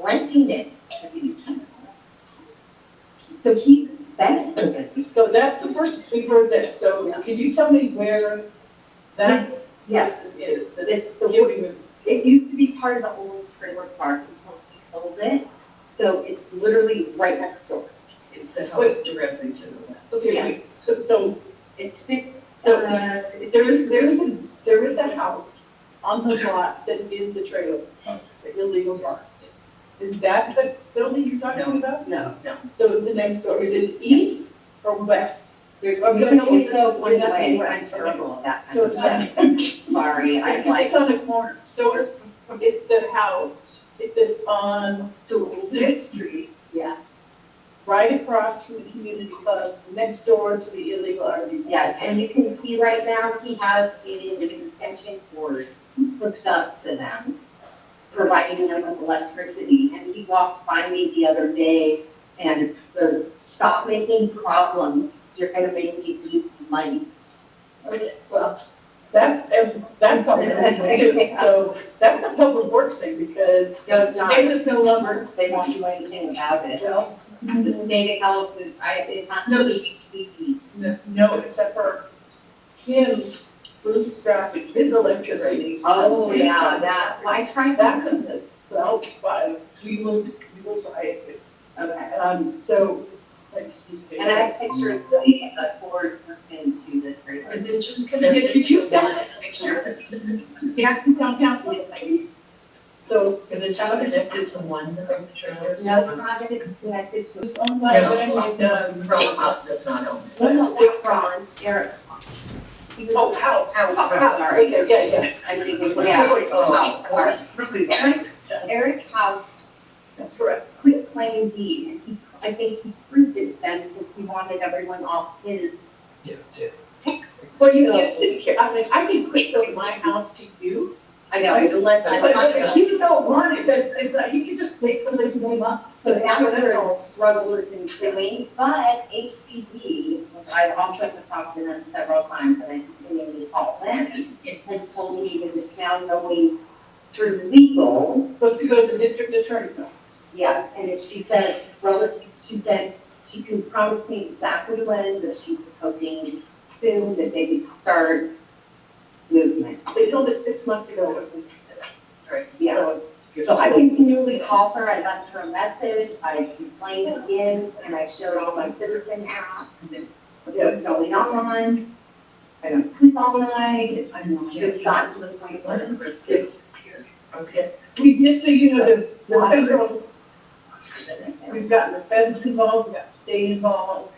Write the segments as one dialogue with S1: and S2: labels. S1: renting it. So he's benefiting.
S2: So that's the first we've heard this, so can you tell me where that
S1: Yes,
S2: business is
S1: It's
S2: that's
S1: the-
S2: giving them?
S1: it used to be part of the old trailer park until he sold it. So it's literally right next door.
S3: It's the house directly to the west.
S2: Okay, wait,
S1: Yes.
S2: so, so
S1: It's fif-
S2: So,
S1: uh,
S2: there is, there is a, there is a house on the lot that is the trailer, the illegal park. Is that the building you're talking about?
S3: No, no,
S2: So it's the next door, is it east or west?
S1: There's
S2: I'm
S1: no
S2: gonna say
S1: way
S2: so,
S1: to
S2: one
S1: one
S2: doesn't
S1: way.
S2: work.
S1: I'm terrible at that kind
S2: So
S1: of
S2: it's
S1: stuff.
S2: west.
S1: Sorry, I'm
S2: Because
S1: like,
S2: it's on the corner, so it's, it's the house, it's on Sixth Street,
S1: yeah,
S2: right across from the community club, next door to the illegal RV.
S1: yes, and you can see right now, he has an extension cord hooked up to them, providing them with electricity, and he walked by me the other day and goes, stop making problems, you're gonna make me lose money.
S2: Okay, Well, that's, that's- that's something illegal too, so that's a public works thing, because
S1: No,
S2: the
S1: it's not.
S2: state is no longer,
S1: They won't do anything about it.
S2: well,
S1: The state of California, I, it has
S2: No,
S1: to be
S2: this- n- no, except for him bootstrapping his electricity.
S1: Oh,
S2: His-
S1: yeah, that, I tried that.
S2: That's a, well, but we will, we will try it too.
S1: Okay.
S2: Um, so, like, see. if they-
S1: And I pictured the uh, forward person to the trailer.
S3: because it's just
S2: Did
S3: connected.
S2: did you send
S3: that?
S2: that picture? Yeah, from town council, yes, I guess. So,
S3: Because it's just connected to one of the trailers.
S1: No, it's not gonna be connected to.
S2: it's owned by,
S3: No.
S2: like, um,
S3: Roll Up does not own it.
S2: What's the
S1: Ron, Eric. He was-
S2: oh, how, how, how, how,
S1: Sorry.
S2: okay, yeah, yeah,
S1: I'm thinking, yeah.
S3: Oh,
S1: Wow, sorry. Eric- Eric House
S2: that's correct.
S1: quit playing deed, and he, I think he proved it to them because he wanted everyone off his.
S2: Well, you get, didn't care, I mean, I can quit building my house to you,
S1: I know, unless
S2: but but if you don't want it, that's, it's like, you can just make somebody's name up.
S1: So that was
S2: That's
S1: her
S2: all.
S1: struggle with him doing, but HPD, which I also have talked to them several times, and I continue to call them, has told me that it's now going through legal,
S2: It's Supposed to go to the district attorney's office.
S1: yes, and if she says, relative, she said, she can promise me exactly when, that she's hoping soon that they could start movement.
S2: They told us six months ago, it was when you said, right?
S1: Yeah.
S2: So,
S1: So I continually call her, I left her a message, I complained again, and I showed all my citizen apps and what's going on. I don't sleep all night, I'm, it's gotten to the point where I'm just, it's
S3: Okay.
S2: We just, so you know, the, the federal, we've gotten the feds involved, we've got the state involved,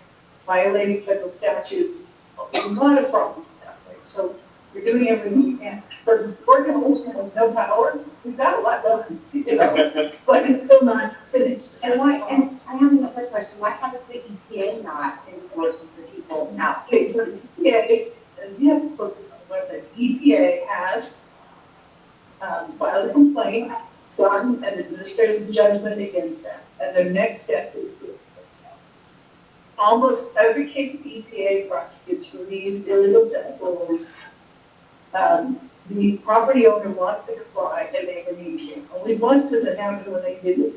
S2: violating federal statutes, a lot of problems in that place, so we're doing everything we can. For Gordon Olson has no power, we've got a lot done, you know, but it's still not finished.
S1: And why, and I have another question, why haven't the EPA not enforced for people now?
S2: Okay, so, yeah, it, and you have to post this on the website, EPA has, um, filed a complaint, gotten an administrative judgment against them, and their next step is to appeal. Almost every case the EPA prosecutes for these illegal cesspools, um, the property owner wants to comply and they need to. Only once has it happened when they didn't,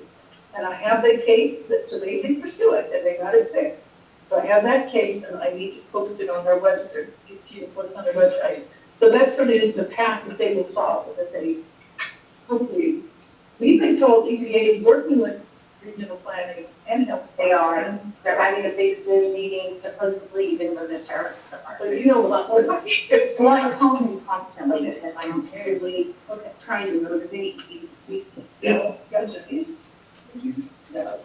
S2: and I have the case that, so they did pursue it, and they got it fixed. So I have that case and I need to post it on their website, it to post on their website. So that sort of is the path that they will follow, that they hopefully, we've been told EPA is working with regional planning and health.
S1: They are. They're having a big Zoom meeting supposedly even though the sheriff's department.
S2: But you know a lot more about it. It's
S1: So
S2: like,
S1: I'm calling constantly because I'm terribly trying to motivate these people.
S2: you know, that's just it. So,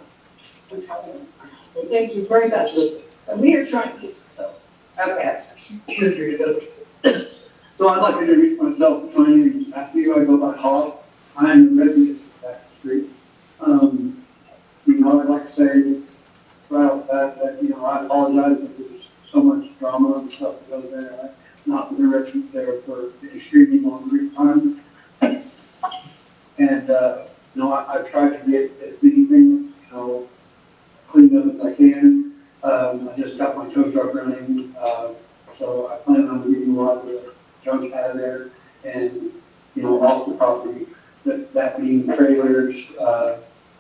S2: we're talking. Well, thank you very much. And we are trying to, so.
S1: Okay.
S4: So I'd like to introduce myself, my name is Matthew, I go by Hall, I am a resident of that street. Um, you know, I'd like to say right off the bat that, you know, I apologize that there's so much drama and stuff that goes there. I've Not been a resident there for an extremely long period of time. And, uh, you know, I, I've tried to get as many things, you know, cleaned up as I can. Um, I just got my tow truck running, uh, so I plan on getting a lot of the junk out of there and, you know, off the property. That, that being trailers, uh,